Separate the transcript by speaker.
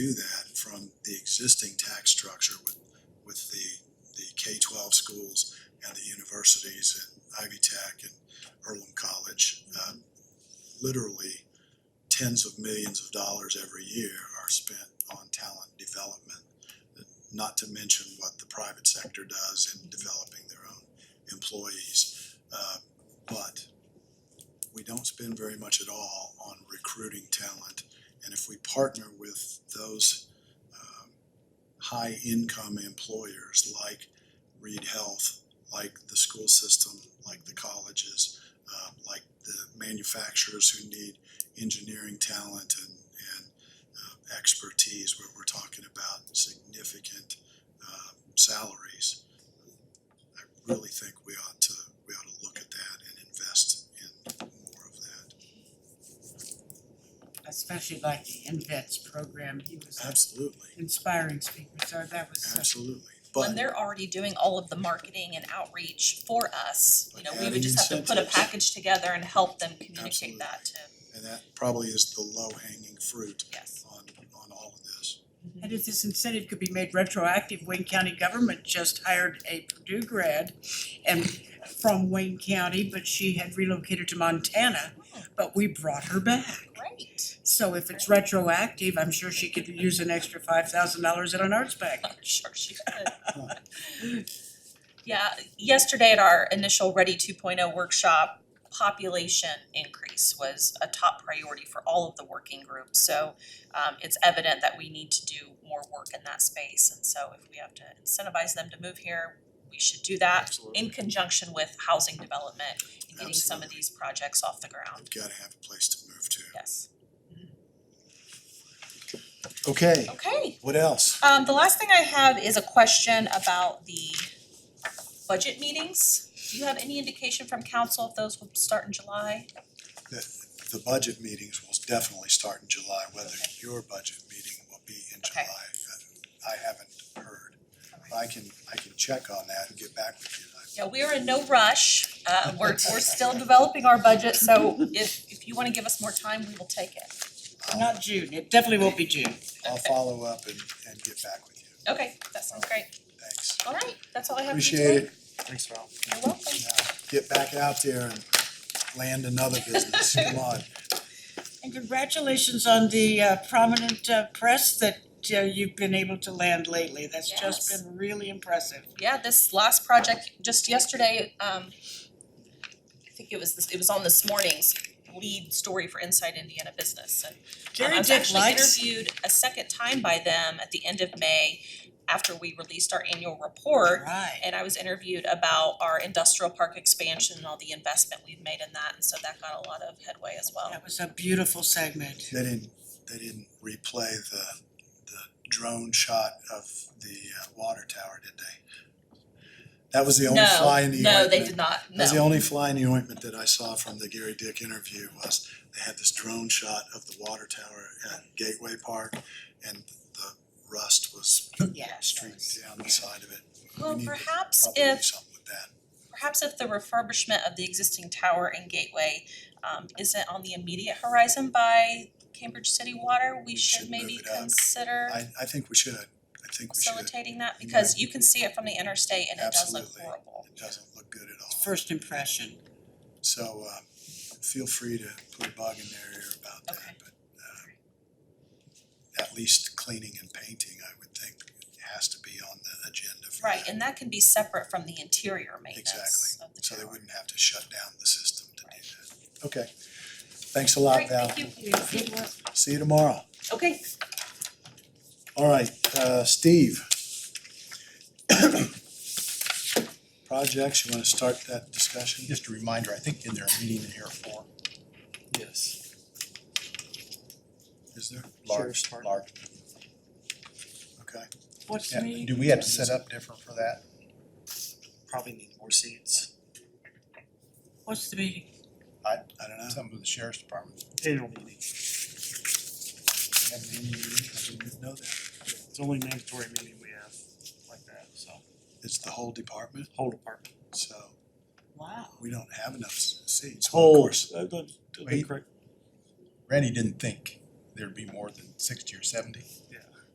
Speaker 1: do that from the existing tax structure with, with the, the K twelve schools and the universities and Ivy Tech and Earlham College. Um, Literally tens of millions of dollars every year are spent on talent development. Not to mention what the private sector does in developing their own employees. Uh, but we don't spend very much at all on recruiting talent. And if we partner with those um, high-income employers like Reed Health, like the school system, like the colleges, um, like the manufacturers who need engineering talent and, and uh, expertise, where we're talking about significant um, salaries, I really think we ought to, we ought to look at that and invest in more of that.
Speaker 2: especially like the InVets program, he was an
Speaker 1: Absolutely,
Speaker 2: inspiring speaker, so that was uh, such,
Speaker 1: absolutely.
Speaker 3: when
Speaker 1: But
Speaker 3: they're already doing all of the marketing and outreach for us, you know, we
Speaker 1: Adding
Speaker 3: would just have to put a
Speaker 1: incentives.
Speaker 3: package together and help them
Speaker 1: Absolutely.
Speaker 3: communicate that to,
Speaker 1: and that probably is the low hanging fruit
Speaker 3: yes.
Speaker 1: on on all of this.
Speaker 2: and if this incentive could be made retroactive, Wayne County government just hired a Purdue grad and from Wayne County, but she had relocated to Montana, but we brought her back.
Speaker 3: Oh, Great,
Speaker 2: So if it's retroactive, I'm sure she could use an extra five thousand dollars in an arts package.
Speaker 3: I'm sure she could. Yeah, yesterday at our initial Ready two oh workshop, population increase was a top priority for all of the working groups. So um it's evident that we need to do more work in that space, and so if we have to incentivize them to move here, we should do that.
Speaker 1: Absolutely.
Speaker 3: in conjunction with housing development and getting some of
Speaker 1: Absolutely.
Speaker 3: these projects off the ground,
Speaker 1: We've gotta have a place to move to.
Speaker 3: yes.
Speaker 1: Okay,
Speaker 3: Okay,
Speaker 1: what else?
Speaker 3: um the last thing I have is a question about the budget meetings. Do you have any indication from council if those will start in July?
Speaker 1: The budget meetings will definitely start in July, whether
Speaker 3: Okay.
Speaker 1: your budget meeting will be in
Speaker 3: Okay.
Speaker 1: July. uh, I haven't heard. I can, I can check on that and get back with you. I-
Speaker 3: Yeah, we are in no rush, uh we're we're still developing our budget, so if if you wanna give us more time, we will take it.
Speaker 1: I'll,
Speaker 2: Not June, it definitely won't be June.
Speaker 1: I'll follow up and and get back with you.
Speaker 3: Okay, that sounds great,
Speaker 1: Thanks.
Speaker 3: all right, that's all I have for you
Speaker 1: Appreciate
Speaker 3: today.
Speaker 1: it.
Speaker 4: Thanks, Val.
Speaker 3: You're welcome.
Speaker 1: Now, Get back out there and land another business. Come on.
Speaker 2: And congratulations on the uh, prominent uh, press that uh, you've been able to land lately. That's just
Speaker 3: Yes.
Speaker 2: been really impressive.
Speaker 3: yeah, this last project, just yesterday, um, I think it was, this- it was on this morning's lead story for Inside Indiana Business, and um, I
Speaker 2: Jerry
Speaker 3: was
Speaker 2: Dick
Speaker 3: actually
Speaker 2: likes,
Speaker 3: interviewed a second time by them at the end of May after we released our annual report,
Speaker 2: right,
Speaker 3: and I was interviewed about our industrial park expansion and all the investment we've made in that, and so that got a lot of headway as well.
Speaker 2: that was a beautiful segment.
Speaker 1: They didn't, they didn't replay the, the drone shot of the uh, water tower, did they? That was the only fly in the
Speaker 3: No,
Speaker 1: ointment.
Speaker 3: no, they did not,
Speaker 1: That was the
Speaker 3: no,
Speaker 1: only fly in the ointment that I saw from the Gary Dick interview was they had this drone shot of the water tower at Gateway Park and the rust was
Speaker 2: Yes.
Speaker 1: streaking down the side of it.
Speaker 3: well,
Speaker 1: We need to
Speaker 3: perhaps if.
Speaker 1: Probably do something with that.
Speaker 3: perhaps if the refurbishment of the existing tower and gateway um isn't on the immediate horizon by Cambridge City Water, we
Speaker 1: We should
Speaker 3: should
Speaker 1: move
Speaker 3: maybe
Speaker 1: it up.
Speaker 3: consider
Speaker 1: I, I think we should. I think we should. It
Speaker 3: facilitating that
Speaker 1: You
Speaker 3: because you can see it from the interstate and it does look
Speaker 1: Absolutely.
Speaker 3: horrible.
Speaker 1: doesn't look good at all.
Speaker 2: First impression.
Speaker 1: So uh, feel free to put a bug in their ear about that,
Speaker 3: Okay.
Speaker 1: but uh, at least cleaning and painting, I would think, has to be on the agenda for
Speaker 3: Right,
Speaker 1: that.
Speaker 3: and that can be separate from the interior maintenance
Speaker 1: Exactly.
Speaker 3: of the
Speaker 1: So they
Speaker 3: tower.
Speaker 1: wouldn't have to shut down the system to do that. Okay. Thanks a lot, Val.
Speaker 3: Great, thank you.
Speaker 1: See you tomorrow.
Speaker 3: Okay,
Speaker 1: All right, uh, Steve. Projects, you wanna start that discussion?
Speaker 5: Just a reminder, I think in their meeting in here for
Speaker 4: Yes.
Speaker 1: Is there?
Speaker 4: Sheriff's
Speaker 5: large,
Speaker 4: Department.
Speaker 5: large.
Speaker 1: Okay.
Speaker 2: What's the
Speaker 5: Yeah,
Speaker 2: meeting?
Speaker 5: Do we have to set up different for that?
Speaker 4: Probably need more seats.
Speaker 2: What's the meeting?
Speaker 1: I don't know.
Speaker 5: Something with the sheriff's department.
Speaker 4: Annual meeting.
Speaker 1: I didn't even know that.
Speaker 4: It's the only mandatory meeting we have like that, so.
Speaker 1: It's the whole department,
Speaker 4: Whole department.
Speaker 1: so
Speaker 2: Wow.
Speaker 1: we don't have enough s- seats. Of
Speaker 4: Whole.
Speaker 1: course,
Speaker 5: Wait. Randy didn't think there'd be more than sixty or seventy.
Speaker 4: Yeah.